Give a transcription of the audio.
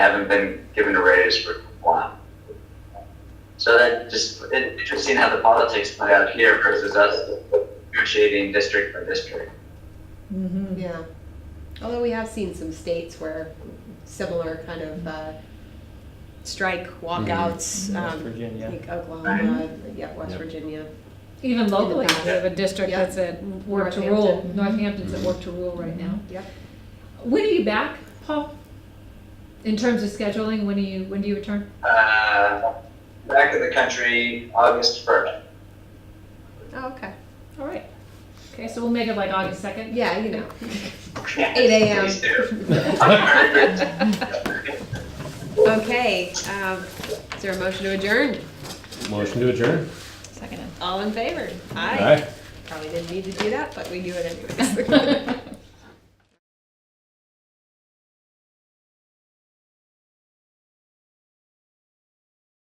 haven't been given a raise for a while. So that just, it, interesting how the politics play out here versus us negotiating district by district. Mm-hmm. Yeah, although we have seen some states where similar kind of uh, strike walkouts. Mm-hmm. um, West I Virginia. think Oklahoma, yeah, West Yep. Virginia. Even locally, past. we have a district Yeah. that's at work to rule. Northampton. Northampton's at work to rule right now. Yep. When are you back, Paul? In terms of scheduling, when do you, when do you return? Uh, back in the country, August first. Oh, okay. All right. Okay, so we'll make it like August 2nd? Yeah, you know. 8 a.m.. Please do. I'm very good. Okay, um, is there a motion to adjourn? Motion to adjourn. All in favor? Aye. Probably didn't need to do that, but we do it anyways.